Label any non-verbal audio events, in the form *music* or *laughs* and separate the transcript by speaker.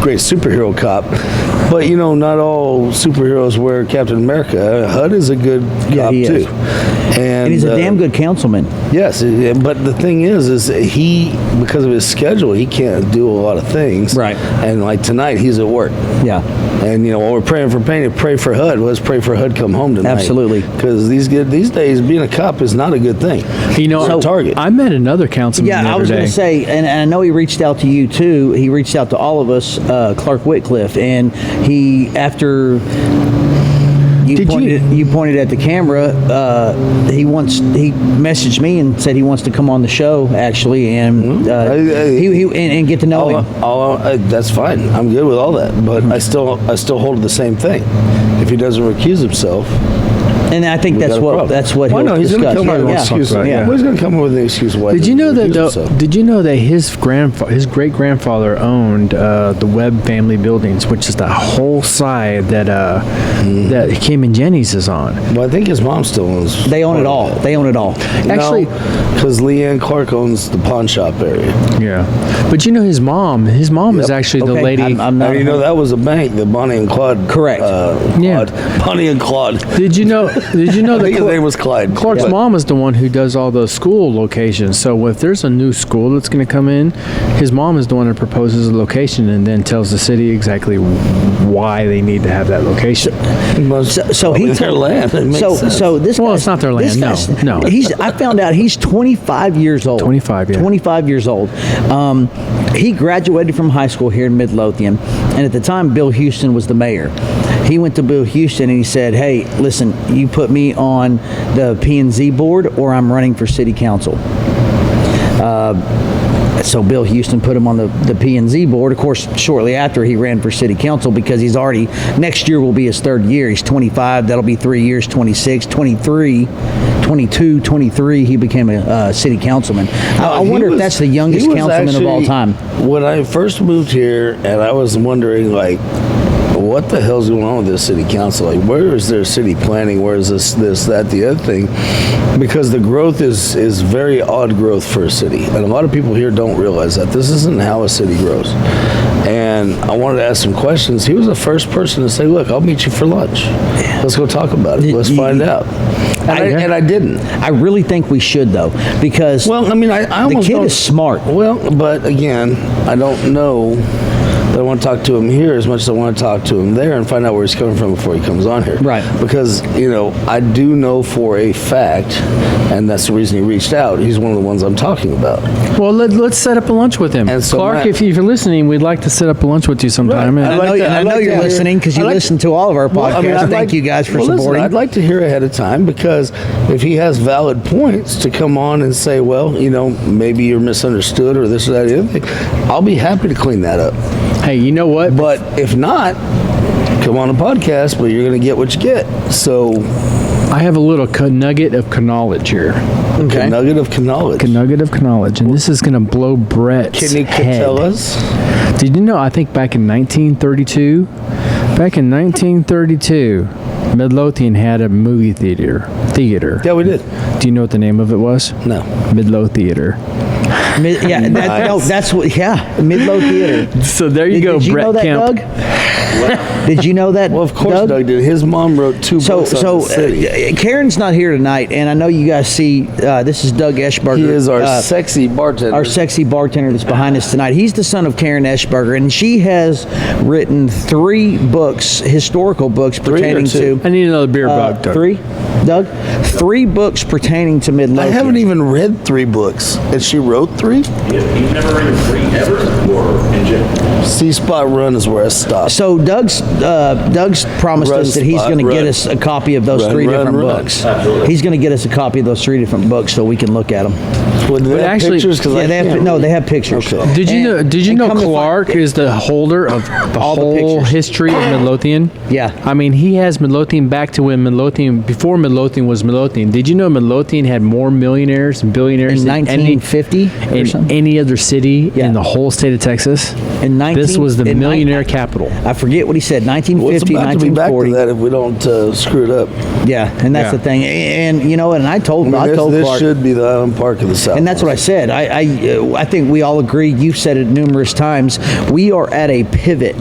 Speaker 1: great superhero cop, but you know, not all superheroes wear Captain America. HUD is a good
Speaker 2: Yeah,
Speaker 1: cop
Speaker 2: he is.
Speaker 1: too, and,
Speaker 2: And he's a
Speaker 1: uh,
Speaker 2: damn good councilman.
Speaker 1: Yes, eh, but the thing is, is he because of his schedule, he can't do a lot of things.
Speaker 2: Right.
Speaker 1: And like tonight, he's at work.
Speaker 2: Yeah.
Speaker 1: And you know, while we're praying for Payne, pray for HUD. Let's pray for HUD come home tonight.
Speaker 2: Absolutely.
Speaker 1: Because these good these days, being a cop is not a good thing.
Speaker 3: You know,
Speaker 1: It's a target.
Speaker 3: I met another councilman. the
Speaker 2: Yeah, I
Speaker 3: other
Speaker 2: was going
Speaker 3: day.
Speaker 2: to say, and, and I know he reached out to you too. He reached out to all of us, uh, Clark Whitcliffe, and he after you
Speaker 3: Did you-
Speaker 2: pointed you pointed at the camera. Uh, he wants he messaged me and said he wants to come on the show actually, and uh,
Speaker 1: Hmm? I- I-
Speaker 2: he, he and, and get to know
Speaker 1: all,
Speaker 2: him.
Speaker 1: all, uh, that's fine. I'm good with all that. But I still I still hold the same thing. If he doesn't recuse himself,
Speaker 2: And I think that's
Speaker 1: got a
Speaker 2: what
Speaker 1: problem.
Speaker 2: that's what
Speaker 1: Well,
Speaker 2: he'll
Speaker 1: no, he's going
Speaker 2: discuss.
Speaker 1: to come up with an excuse.
Speaker 3: about it,
Speaker 1: Well, he's going to come up with an excuse why. he
Speaker 3: Did you know
Speaker 1: doesn't
Speaker 3: that?
Speaker 1: recuse
Speaker 3: Though,
Speaker 1: himself.
Speaker 3: did you know that his grandfa- his great grandfather owned uh, the Webb family buildings, which is that whole side that uh,
Speaker 2: Mm.
Speaker 3: that Kim and Jenny's is on.
Speaker 1: Well, I think his mom still owns.
Speaker 2: They own it all. They own it all.
Speaker 3: Actually-
Speaker 1: because Leanne Clark owns the pawn shop area.
Speaker 3: Yeah, but you know his mom. His mom is
Speaker 1: Yep.
Speaker 3: actually
Speaker 2: Okay,
Speaker 3: the lady.
Speaker 2: I'm- I'm not-
Speaker 1: And you know that was a bank that Bonnie and Claude.
Speaker 2: Correct.
Speaker 1: Uh,
Speaker 3: Yeah.
Speaker 1: Claude, Bonnie and Claude.
Speaker 3: did you know? Did
Speaker 2: *laughs*
Speaker 3: you know
Speaker 1: I
Speaker 3: that
Speaker 1: think his
Speaker 3: Cla-
Speaker 1: name was Clyde.
Speaker 3: Clark's
Speaker 1: But-
Speaker 3: mom is the one who does all those school locations. So if there's a new school that's going to come in, his mom is the one that proposes a location and then tells the city exactly why they need to have that location.
Speaker 2: So, so
Speaker 1: Probably
Speaker 2: he
Speaker 1: their
Speaker 2: told-
Speaker 1: land. It makes
Speaker 2: so
Speaker 1: sense.
Speaker 2: so this.
Speaker 3: Well,
Speaker 2: guy's-
Speaker 3: it's not their
Speaker 2: this
Speaker 3: land, no,
Speaker 2: guy's-
Speaker 3: no.
Speaker 2: He's. I found out he's 25 years old.
Speaker 3: 25, yeah.
Speaker 2: 25 years old. Um, he graduated from high school here in Midlothian, and at the time, Bill Houston was the mayor. He went to Bill Houston and he said, "Hey, listen, you put me on the P and Z board, or I'm running for city council." so Bill Houston put him on the, the P&Z board. Of course, shortly after he ran for city council because he's already, next year will be his third year. He's 25, that'll be three years, 26, 23, 22, 23, he became a uh, city councilman. I, I
Speaker 1: He
Speaker 2: wonder if
Speaker 1: was-
Speaker 2: that's the
Speaker 1: he
Speaker 2: youngest
Speaker 1: was
Speaker 2: councilman of all
Speaker 1: actually-
Speaker 2: time.
Speaker 1: When I first moved here, and I was wondering, like, what the hell's going on with this city council? Like, where is their city planning? Where is this, this, that, the other thing? Because the growth is is very odd growth for a city, and a lot of people here don't realize that this isn't how a city grows. And I wanted to ask some questions. He was the first person to say, "Look, I'll meet you for lunch. Let's go talk about it.
Speaker 2: Did
Speaker 1: Let's
Speaker 2: you-
Speaker 1: find out." And I, and I didn't.
Speaker 2: I really think we should, though, because
Speaker 1: Well, I mean, I, I
Speaker 2: the
Speaker 1: almost
Speaker 2: kid
Speaker 1: don't-
Speaker 2: is smart.
Speaker 1: well, but again, I don't know that I want to talk to him here as much as I want to talk to him there and find out where he's coming from before he comes on here.
Speaker 2: Right.
Speaker 1: Because, you know, I do know for a fact, and that's the reason he reached out, he's one of the ones I'm talking about.
Speaker 3: Well, let, let's set up a lunch with him.
Speaker 1: And so
Speaker 3: Clark,
Speaker 1: Matt-
Speaker 3: if, you- if you're listening, we'd like to set up a lunch with you sometime.
Speaker 1: Right.
Speaker 3: And-
Speaker 1: I like
Speaker 2: I know,
Speaker 1: to-
Speaker 2: and I
Speaker 1: I'd
Speaker 2: know
Speaker 1: like to
Speaker 2: you're
Speaker 1: hear-
Speaker 2: listening because you
Speaker 1: I'd like-
Speaker 2: listen to all of our podcasts.
Speaker 1: Well, I mean, I'd
Speaker 2: Thank
Speaker 1: like-
Speaker 2: you guys for
Speaker 1: well, listen,
Speaker 2: supporting.
Speaker 1: I'd like to hear ahead of time because if he has valid points to come on and say, well, you know, maybe you're misunderstood or this or that, or the other thing, I'll be happy to clean that up.
Speaker 3: hey, you know what?
Speaker 1: But if not, come on a podcast, but you're going to get what you get. So,
Speaker 3: I have a little ca- nugget of ca- knowledge here.
Speaker 1: a
Speaker 2: okay.
Speaker 1: nugget of knowledge.
Speaker 3: A nugget of ca- knowledge, and this is going to blow Brett's
Speaker 1: Can you
Speaker 3: head.
Speaker 1: tell us?
Speaker 3: Did you know? I think back in 1932, back in 1932, Midlothian had a movie theater. Theater.
Speaker 1: Yeah, we did.
Speaker 3: Do you know what the name of it was?
Speaker 1: No.
Speaker 3: Midlow Theater.
Speaker 1: *laughs*
Speaker 2: Mid- yeah, that, no, that's what. Yeah, Midlow Theater.
Speaker 3: So there you
Speaker 2: Did,
Speaker 3: go,
Speaker 2: did you
Speaker 3: Brett
Speaker 2: know that,
Speaker 3: Kemp.
Speaker 2: Doug?
Speaker 1: *laughs*
Speaker 2: did you know that?
Speaker 1: Well, of course, Doug, did. His mom wrote two
Speaker 2: So,
Speaker 1: books
Speaker 2: so
Speaker 1: on the city.
Speaker 2: uh, Karen's not here tonight, and I know you guys see. Uh, this is Doug Eschberger.
Speaker 1: he is our
Speaker 2: uh,
Speaker 1: sexy bartender.
Speaker 2: our sexy bartender that's behind us tonight. He's the son of Karen Eschberger, and she has written three books, historical books
Speaker 1: or
Speaker 2: pertaining
Speaker 1: two?
Speaker 2: to
Speaker 3: I need another beer,
Speaker 2: uh,
Speaker 3: Bob. Doug.
Speaker 2: three, Doug, three books pertaining to
Speaker 1: I
Speaker 2: Midlothian.
Speaker 1: haven't even read three books, and she wrote three.
Speaker 4: You've never ridden free ever? Or engine?
Speaker 1: C Spot Run is where I stopped.
Speaker 2: So Doug's uh, Doug's promised
Speaker 1: Run
Speaker 2: us that he's
Speaker 1: spot,
Speaker 2: going to get
Speaker 1: run.
Speaker 2: us a copy of those
Speaker 1: Run,
Speaker 2: three
Speaker 1: run,
Speaker 2: different
Speaker 1: run.
Speaker 2: books. He's going to get us a copy of those three different books so we can look at them.
Speaker 1: Well, do they
Speaker 3: But
Speaker 1: have
Speaker 3: actually-
Speaker 1: pictures? 'Cause I
Speaker 2: Yeah, they have,
Speaker 1: can't
Speaker 2: no,
Speaker 1: read.
Speaker 2: they have pictures.
Speaker 1: Okay.
Speaker 3: Did you
Speaker 2: And-
Speaker 3: know? Did you
Speaker 2: and
Speaker 3: know
Speaker 2: come to find-
Speaker 3: Clark is the
Speaker 2: *laughs*
Speaker 3: holder of the
Speaker 2: the
Speaker 3: whole
Speaker 2: pictures.
Speaker 3: history of Midlothian?
Speaker 2: Yeah.
Speaker 3: I mean, he has Midlothian back to when Midlothian before Midlothian was Midlothian. Did you know Midlothian had more millionaires and billionaires
Speaker 2: in
Speaker 3: than any
Speaker 2: 1950 or
Speaker 3: in
Speaker 2: something?
Speaker 3: any other city
Speaker 2: Yeah.
Speaker 3: in the whole state of Texas?
Speaker 2: In 19
Speaker 3: this was the
Speaker 2: in nine-
Speaker 3: millionaire capital.
Speaker 2: I forget what he said.
Speaker 1: Well, it's
Speaker 2: 1950,
Speaker 1: about to be back to
Speaker 2: 1940.
Speaker 1: that if we don't uh, screw it up.
Speaker 2: Yeah, and that's
Speaker 3: Yeah.
Speaker 2: the thing. And, and, you know, and I told
Speaker 1: I
Speaker 2: I,
Speaker 1: mean, this,
Speaker 2: told
Speaker 1: this
Speaker 2: Clark,
Speaker 1: should be the Island Park of the South.
Speaker 2: and that's what I said. I I, uh, I think we all agree. You've said it numerous times. We are at a pivot